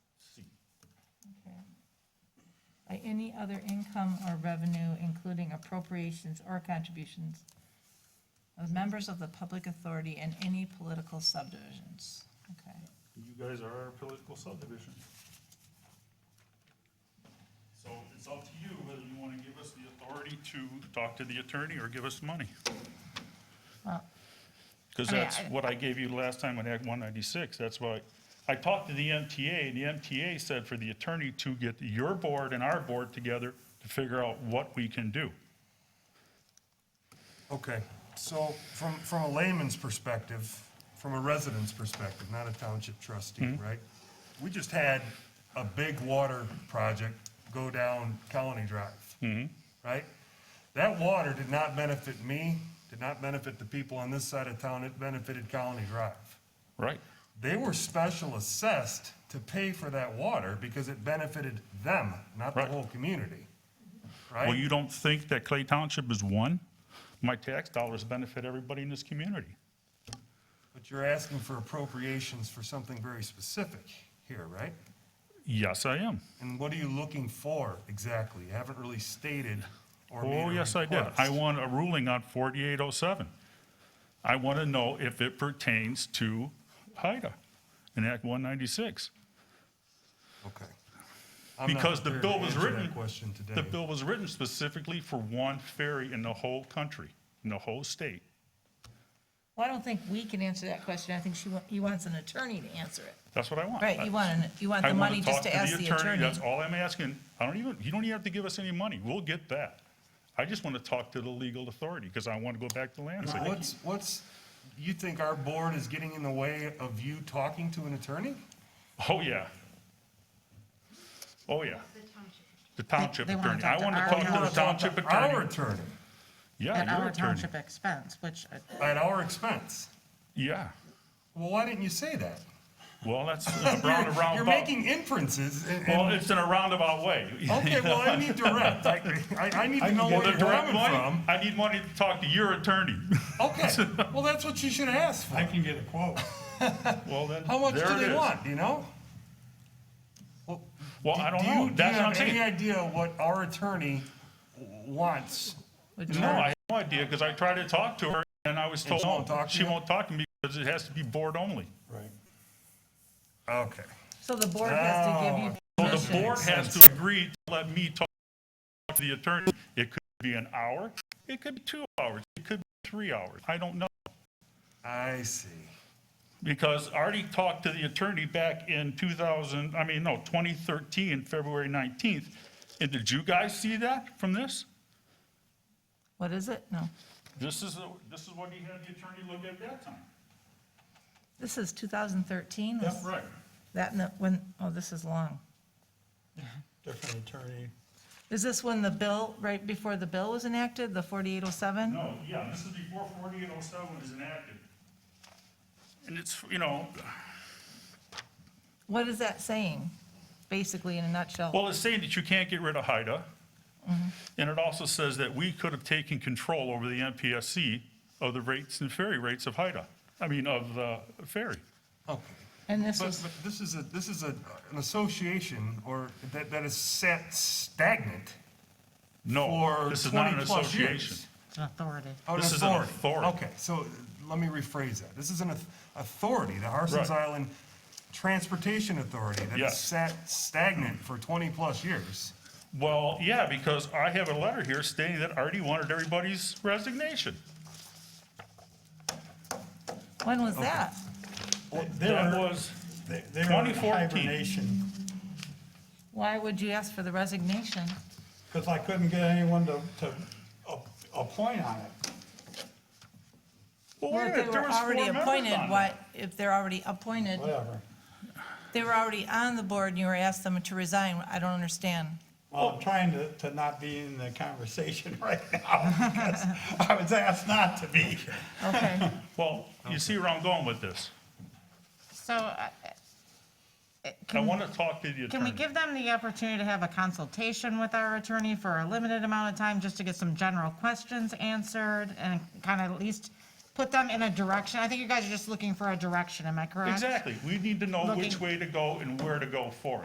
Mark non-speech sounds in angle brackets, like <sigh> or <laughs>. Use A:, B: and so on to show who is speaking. A: say any other income or revenue, including appropriations or contributions of members of the public authority and any political subdivisions. Okay.
B: You guys are our political subdivision. So it's up to you whether you want to give us the authority to talk to the attorney or give us money.
A: Well,
B: Because
A: I mean,
B: that's
A: I-
B: what I gave you last time on Act 196. That's why, I talked to the MTA, and the MTA said for the attorney to get your board and our board together to figure out what we can do.
C: Okay, so from, from a layman's perspective, from a resident's perspective, not a township trustee,
B: Mm-hmm.
C: right? We just had a big water project go down Colony Drive.
B: Mm-hmm.
C: Right? That water did not benefit me, did not benefit the people on this side of town, it benefited Colony Drive.
B: Right.
C: They were special assessed to pay for that water because it benefited them, not the
B: Right.
C: whole community.
B: Well,
C: Right?
B: you don't think that Clay Township is one? My tax dollars benefit everybody in this community.
C: But you're asking for appropriations for something very specific here, right?
B: Yes, I am.
C: And what are you looking for exactly? You haven't really stated or made a
B: Oh, yes, I did.
C: request.
B: I want a ruling on 4807. I want to know if it pertains to HIDA in Act 196.
C: Okay. I'm not
B: Because the
C: prepared
B: bill
C: to
B: was
C: answer that
B: written-
C: Question
B: The
C: today.
B: bill was written specifically for one ferry in the whole country, in the whole state.
A: Well, I don't think we can answer that question. I think she, wa- he wants an attorney to answer it.
B: That's what I want.
A: Right, you want, an- you want
B: I
A: the
B: wanna
A: money just
B: talk
A: to ask the attorney.
B: That's all I'm asking. I don't even, you don't even have to give us any money. We'll get that. I just want to talk to the legal authority because I want to go back to Lansing.
C: What's, what's, you think our board is getting in the way of you talking to an attorney?
B: Oh, yeah. Oh, yeah. The township
A: They- they wanna
B: attorney. I
A: talk to
B: want to
A: our
B: talk to
A: town-
B: the township
C: Our
B: attorney.
C: attorney,
A: At
B: Yeah, your
A: our
B: attorney.
A: township expense, which, uh,
C: at our expense.
B: Yeah.
C: Well, why didn't you say that?
B: Well, that's a round, a
C: <laughs> You're
B: roundabout.
C: making inferences and,
B: Well,
C: and,
B: it's in a roundabout way. <laughs>
C: okay, well, I need direct. I, I- I need to know
B: Well,
C: where
B: the
C: you're
B: direct
C: coming
B: money,
C: from.
B: I need money to talk to your attorney.
C: <laughs> Okay,
B: <laughs>
C: well, that's what you should ask for.
D: I can get a quote.
B: Well, then,
C: How much
B: there
C: do
B: it
C: they
B: is.
C: want, do you know?
B: Well, I don't
C: Do you-
B: know. That's what I'm
C: Do you
B: saying.
C: have any idea what our attorney w- wants?
A: which.
B: No, I have no idea because I tried to talk to her and I was told,
C: she won't
B: no,
C: talk to
B: she
C: you?
B: won't talk to me because it has to be board only.
D: Right.
C: Okay.
A: So the board has to give you.
B: So Oh, the
A: permission.
B: board has to agree to let me talk to the attorney. It could be an hour, it could be two hours, it could be three hours. I don't know.
C: I see.
B: Because I already talked to the attorney back in 2000, I mean, no, 2013, February 19th. And did you guys see that from this?
A: What is it? No.
B: This is, this is what he had the attorney look at that time.
A: This is 2013?
B: That's right.
A: That, no- when, oh, this is long.
D: Different attorney.
A: Is this when the bill, right before the bill was enacted, the 4807?
B: No, yeah, this is before 4807 is enacted. And it's, you know,
A: What is that saying, basically, in a nutshell?
B: well, it's saying that you can't get rid of HIDA.
E: Mm-hmm.
B: And it also says that we could have taken control over the MPSC of the rates and ferry rates of HIDA, I mean, of the ferry.
C: Okay.
A: And this
C: But,
A: was,
C: but this is a, this is a, an association or that, that is set stagnant
B: No,
C: for
B: this is not an
C: 20-plus years.
B: association.
E: It's an authority.
C: Oh,
B: This is an authority.
C: Okay, so let me rephrase that. This is an auth- authority, the Harson's
B: Right.
C: Island Transportation Authority that
B: Yes.
C: has sat stagnant for 20-plus years.
B: Well, yeah, because I have a letter here stating that Artie wanted everybody's resignation.
A: when was that?
B: That was
D: They they were
B: 2014.
D: in hibernation,
A: Why would you ask for the resignation?
D: because I couldn't get anyone to, to a- appoint on it.
B: Well, wait
A: Well,
B: a
A: if
B: minute,
A: they
B: there
A: were
B: was four
A: already
B: members
A: appointed,
B: on
A: why, if they're already appointed,
D: Whatever.
A: they were already on the board and you were asked them to resign, I don't understand.
D: Well, I'm trying to, to not be in the conversation <laughs> right now, because I was asked not to be.
A: Okay,
B: that. Well, you see where I'm going with this.
E: So, uh, uh,
B: I
E: can,
B: want to talk to the
E: can we
B: attorney.
E: give them the opportunity to have a consultation with our attorney for a limited amount of time, just to get some general questions answered, and kind of at least put them in a direction? I think you guys are just looking for a direction, am I correct?
B: Exactly. We need to know
E: Looking-
B: which way to go and where to go for it.